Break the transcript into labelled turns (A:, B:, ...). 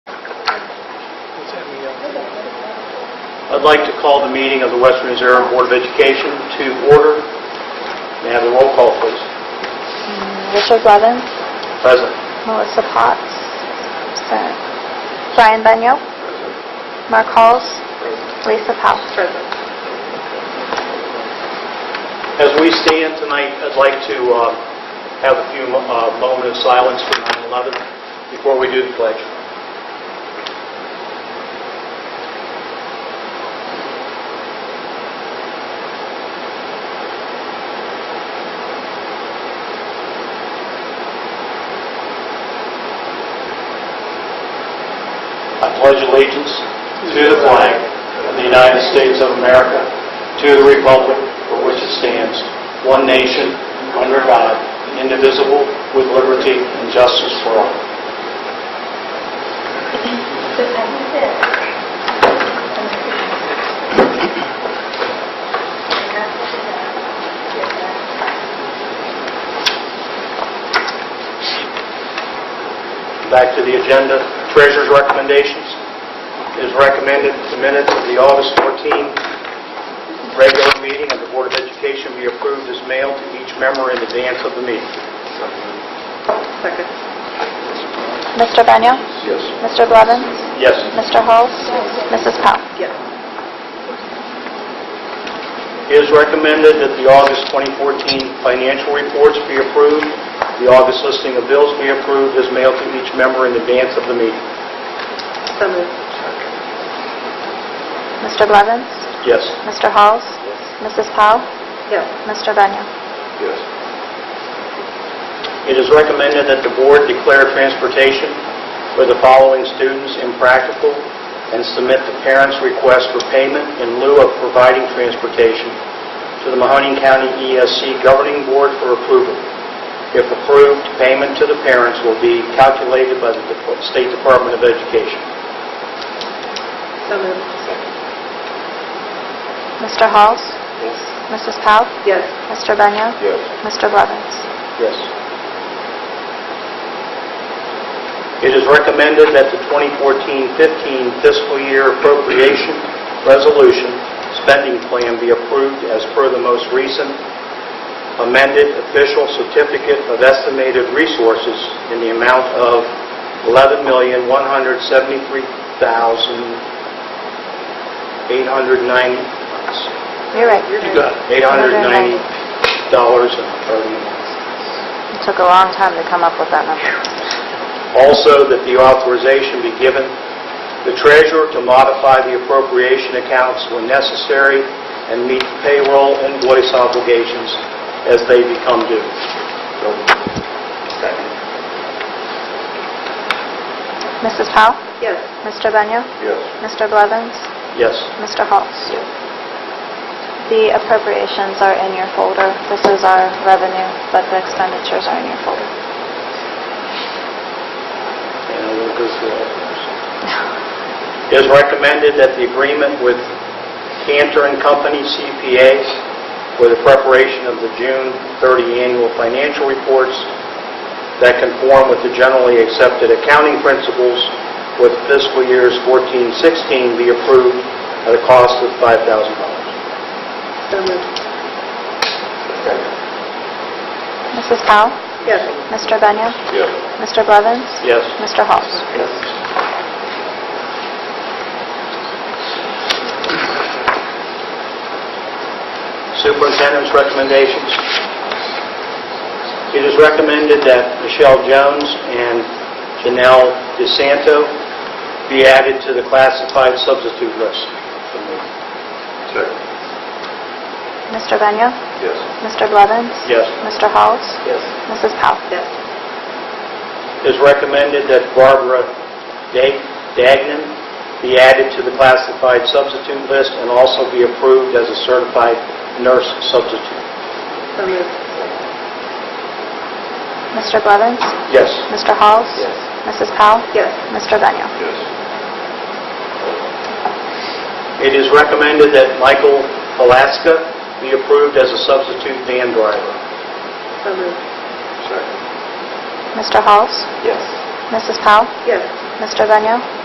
A: I'd like to call the meeting of the Western Reserve Board of Education to order. May I have a roll call, please?
B: Richard Blevins,
A: Present.
B: Melissa Potts, absent. Brian Benyo, Mark Halls, Lisa Powell.
A: As we stand tonight, I'd like to uh, have a few uh, moment of silence for 9/11 before we do the pledge. I pledge allegiance to the flag of the United States of America, to the republic for which it stands, one nation, under God, indivisible, with liberty and justice for all. Back to the agenda, treasurer's recommendations. It is recommended that the minutes of the August 14 regular meeting of the Board of Education be approved as mailed to each member in advance of the meeting.
C: Second.
B: Mr. Benyo,
A: Yes.
B: Mr. Blevins,
A: Yes.
B: Mr. Halls, Mrs. Powell.
C: Yes.
A: It is recommended that the August 2014 financial reports be approved, the August listing of bills be approved as mailed to each member in advance of the meeting.
C: So moved.
B: Mr. Blevins,
A: Yes.
B: Mr. Halls, Mrs. Powell,
C: Yes.
B: Mr. Benyo.
A: Yes. It is recommended that the board declare transportation for the following students impractical and submit the parents' request for payment in lieu of providing transportation to the Mahoning County ESC Governing Board for approval. If approved, payment to the parents will be calculated by the Dep- State Department of Education.
C: So moved.
B: Mr. Halls, Mrs. Powell,
C: Yes.
B: Mr. Benyo,
A: Yes.
B: Mr. Blevins.
A: Yes. It is recommended that the 2014-15 fiscal year appropriation resolution spending plan be approved as per the most recent amended official certificate of estimated resources in the amount of $11,173,890.
B: You're right.
C: You're good.
A: $890.30.
B: It took a long time to come up with that number.
A: Also, that the authorization be given the treasurer to modify the appropriation accounts when necessary and meet payroll invoice obligations as they become due.
B: Mrs. Powell,
C: Yes.
B: Mr. Benyo,
A: Yes.
B: Mr. Blevins,
A: Yes.
B: Mr. Halls. The appropriations are in your folder. This is our revenue, but the expenditures are in your folder.
A: And we'll go through all those. It is recommended that the agreement with Cantor and Company CPAs for the preparation of the June 30 annual financial reports that conform with the generally accepted accounting principles with fiscal years 14-16 be approved at a cost of $5,000.
C: So moved.
B: Mrs. Powell,
C: Yes.
B: Mr. Benyo, Mr. Blevins,
A: Yes.
B: Mr. Halls.
A: Superintendent's recommendations. It is recommended that Michelle Jones and Janelle DeSanto be added to the classified substitute list.
B: Mr. Benyo,
A: Yes.
B: Mr. Blevins,
A: Yes.
B: Mr. Halls,
A: Yes.
B: Mrs. Powell.
C: Yes.
A: It is recommended that Barbara Dag- Dagnan be added to the classified substitute list and also be approved as a certified nurse substitute.
C: So moved.
B: Mr. Blevins,
A: Yes.
B: Mr. Halls, Mrs. Powell,
C: Yes.
B: Mr. Benyo.
A: Yes. It is recommended that Michael Alaska be approved as a substitute van driver.
C: So moved.
A: Second.
B: Mr. Halls,
A: Yes.
B: Mrs. Powell,
C: Yes.
B: Mr. Benyo,